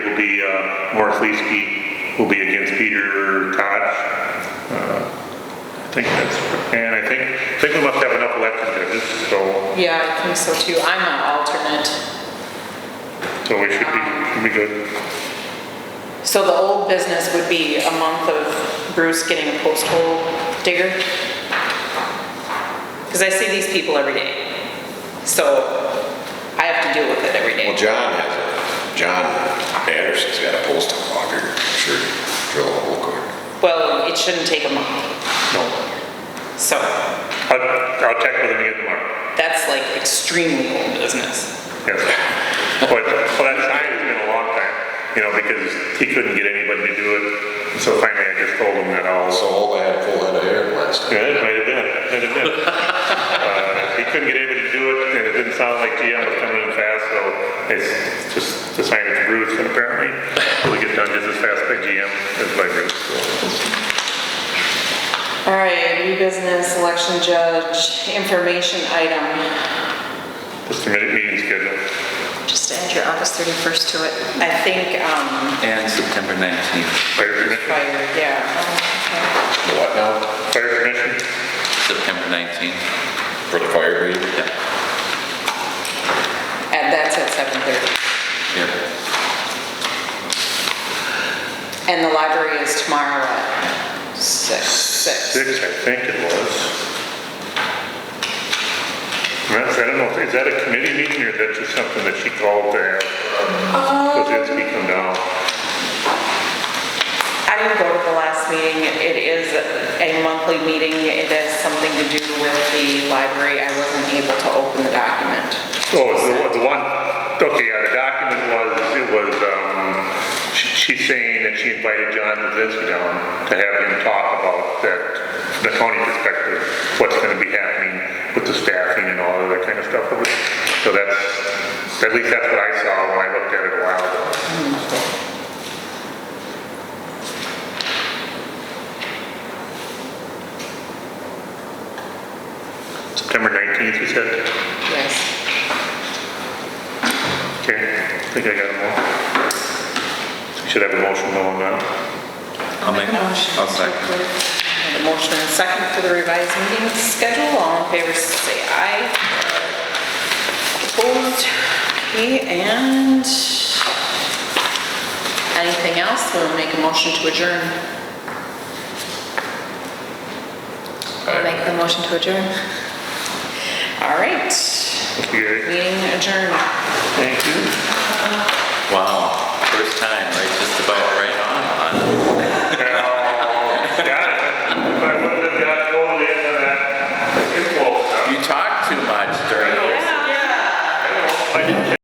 be, uh, Morris Leeske will be against Peter Koch. Uh, I think that's, and I think, I think we must have enough elected judges, so, Yeah, I think so too. I'm an alternate. so we should be, should be good. So the old business would be a month of Bruce getting a post hole digger? Because I see these people every day. So I have to deal with it every Well, day. John has it. John Anderson's got a postal logger, sure, drill a hole cord. Well, it shouldn't take a month. No. So I'll, I'll check with him again tomorrow. that's like extremely old business. Yes. But, well, that sign has been a long time, you know, because he couldn't get anybody to do it. So finally I just told him that I'll, So all I had a full head of hair last night. Yeah, it might have been, might have been. Uh, He couldn't get anybody to do it, and it didn't sound like GM was coming in fast, so it's just the sign it's Bruce, and apparently it'll get done just as fast by GM as by Bruce. All right, new business, election judge, information item. Just a minute, meeting schedule. Just add your August 31st to it. I think, um, And September 19th, Fire commission, prior, yeah. The What now? fire commission, September 19th, For the fire breather? yeah, And that's at 7:30. yeah. And the library is tomorrow at 6. six, I think it was. And that's- I don't know, is that a committee meeting, or is that just something that she called to have? Kozinski come down? I didn't go to the last meeting. It is a monthly meeting. It has something to do with the library. I wasn't able to open the document. Oh, it's the one- the one, okay, yeah, the document was, it was, um, she- she's saying that she invited John Lazinski down to have him talk about that, the county perspective, what's gonna be happening with the staffing and all of that kind of stuff. over there. So that's, at least that's what I saw when I looked at it a while ago. September nineteenth, you said? Yes. Okay, I think I got them all. Should have a motion going on. I'll make, I'll second. The motion and second for the revised meeting schedule. All in favor, say aye. Opposed? Okay, and anything else? We'll make a motion to adjourn. I'll make the motion to adjourn. All right, Thank you. meeting adjourned. Thank you. Wow, first time.